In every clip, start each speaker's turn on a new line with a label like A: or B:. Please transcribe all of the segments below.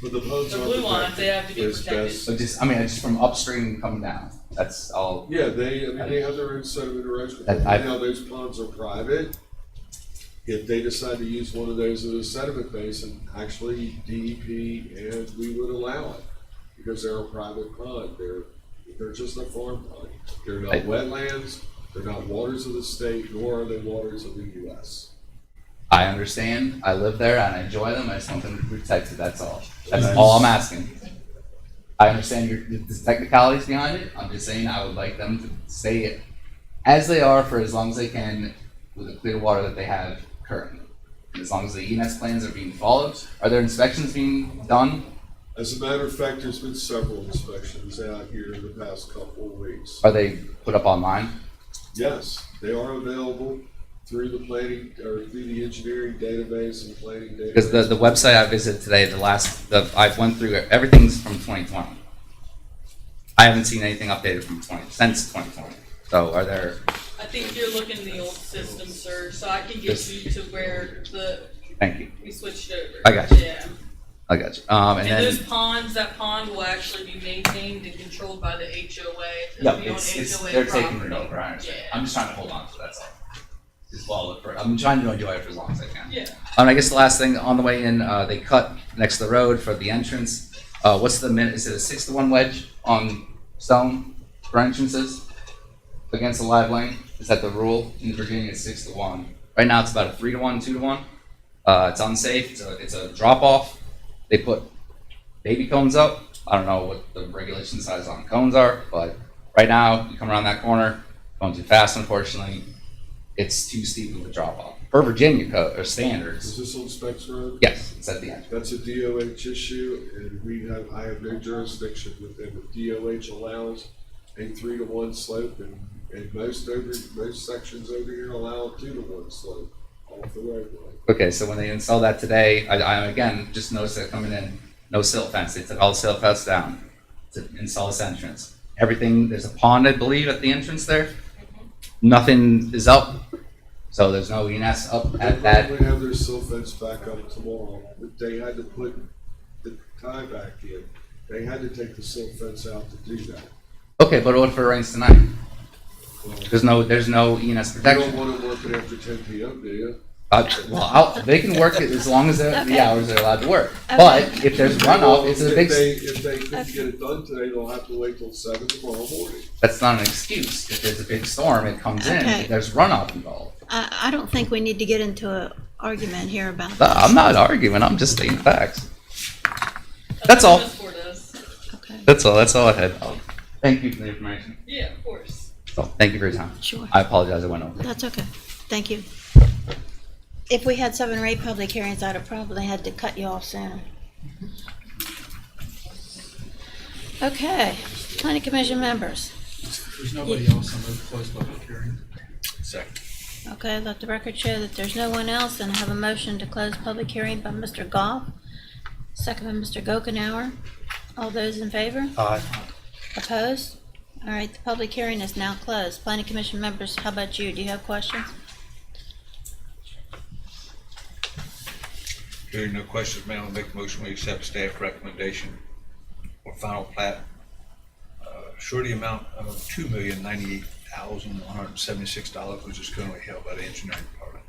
A: But the ponds
B: The
A: are
B: blue ones, they have to be
A: There's
B: protected.
A: best-
C: So just, I mean, it's just from upstream coming down, that's all.
A: Yeah, they, I mean, they have their own set of interactions.
C: That I-
A: Now, those ponds are private. If they decide to use one of those as a sediment basin, actually DEP and we would allow it. Because they're a private pond, they're, they're just a farm pond. They're not
C: I-
A: wetlands, they're not waters of the state, nor are they waters of the US.
C: I understand, I live there and I enjoy them, I just want them to be protected, that's all. That's all I'm asking. I understand your, the the technicalities behind it, I'm just saying I would like them to stay as they are for as long as they can with the clear water that they have currently. And As long as the ENS plans are being followed, are there inspections being done?
A: As a matter of fact, there's been several inspections out here in the past couple of weeks.
C: Are they put up online?
A: Yes, they are available through the planning, or through the engineering database and planning database.
C: Because the, the website I visited today, the last, the, I've went through, it, everything's from twenty twenty. I haven't seen anything updated from twenty, since twenty twenty, so are there,
B: I think you're looking in the old system, sir, so I can get
C: Yes.
B: you to where the,
C: thank you,
B: we switched over.
C: I got you.
B: Yeah.
C: I got you, um, and
B: And those
C: then,
B: ponds, that pond will actually be maintained and controlled by the HOA.
C: yeah,
B: It'll be on
C: it's, it's,
B: HOA
C: they're taking it
B: property.
C: over, I understand,
B: Yeah.
C: I'm just trying to hold on to it, that's all. Just follow it for, I'm trying to enjoy it for as long as I can.
B: Yeah,
C: Um, I guess the last thing, on the way in, uh, they cut next to the road for the entrance, uh, what's the min, is it a six to one wedge on stone for entrances? Against the live lane, is that the rule in Virginia, it's six to one, right now it's about a three to one, two to one. Uh, it's unsafe, it's a, it's a drop off, they put baby cones up, I don't know what the regulation size on cones are, but right now, you come around that corner, going too fast unfortunately, it's too steep of a drop off, for Virginia code, or standards.
A: Is this on Specs Road?
C: Yes, it's at the end.
A: That's a DOH issue, and we have, I have no jurisdiction with them. If DOH allows a three to one slope, and, and most over, most sections over here allow a two to one slope off the roadway.
C: Okay, so when they install that today, I, I again just noticed that coming in, no silt fence. They took all the silt fence down to install this entrance. Everything, there's a pond, I believe, at the entrance there.
D: Mm-hmm.
C: Nothing is up, so there's no ENS up
A: They
C: at that.
A: probably have their silt fence back up tomorrow, but they had to put the tie back in. They had to take the silt fence out to do that.
C: Okay, but what if it rains tonight?
A: Well,
C: There's no, there's no ENS
A: You don't
C: protection.
A: wanna work it after ten P M, do you?
C: Uh, well, I'll, they can work it as long as they're- the
D: Okay.
C: hours they're allowed to work. But if there's runoff, it's a
A: If
C: big,
A: they-
C: s-
A: If they couldn't get it done today, they'll have to wait till seven tomorrow morning.
C: that's not an excuse. If there's a big storm, it comes in,
D: Okay.
C: if there's runoff involved.
D: I, I don't think we need to get into an argument here about this.
C: No, Uh, I'm not arguing. I'm just stating facts.
B: that's
C: That's
B: what
C: all.
B: this board does.
D: Okay,
C: That's all. That's all I had. Oh, Thank you for the information.
B: Yeah, of course.
C: So, thank you for your time.
D: sure.
C: I apologize. I went over.
D: That's okay. Thank you. If we had seven or eight public hearings, I'd have probably had to cut you off sooner. Okay, planning commission members.
E: There's nobody else, I'm going to close public hearing.
D: Okay, let the record show that there's no one else and I have a motion to close public hearing by Mr. Goff, second by Mr. Gokenhour. All those in favor? Aye. Opposed? All right, the public hearing is now closed. Planning Commission members, how about you? Do you have questions?
F: Hearing no questions, Madam, I'll make a motion, we accept staff recommendation for final plat. uh, Surety amount of two million ninety-eight thousand one hundred and seventy-six dollars, which is currently held by the engineering department.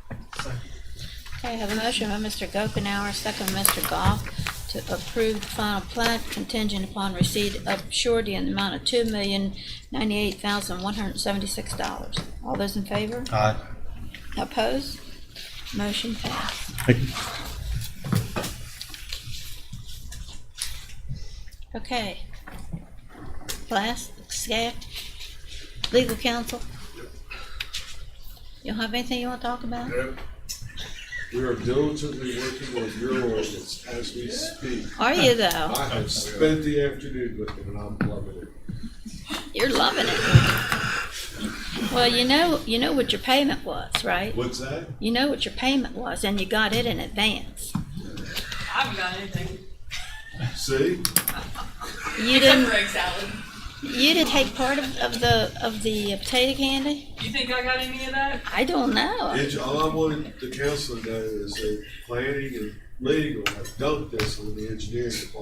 D: Okay, I have a motion by Mr. Gokenhour, second by Mr. Goff, to approve the final plat contingent upon receipt of surety in the amount of two million ninety-eight thousand one hundred and seventy-six dollars. All those in favor?
F: Aye.
D: Opposed? Motion passed. Okay. Last, staff, legal counsel? You have anything you want to talk about?
A: We are diligently working on your ordinance as we speak.
D: Are you though?
A: I have spent the afternoon with it, and I'm loving it.
D: You're loving it. Well, you know, you know what your payment was, right?
A: What's that?
D: You know what your payment was and you got it in advance.
B: I haven't got anything.
A: See?
D: You
B: Except
D: didn't,
B: for egg salad.
D: you didn't take part of, of the, of the potato candy?
B: You think I got any of that?
D: I don't know.
A: It's, all I wanted the council to know is that planning and legal have dumped this on the engineering department.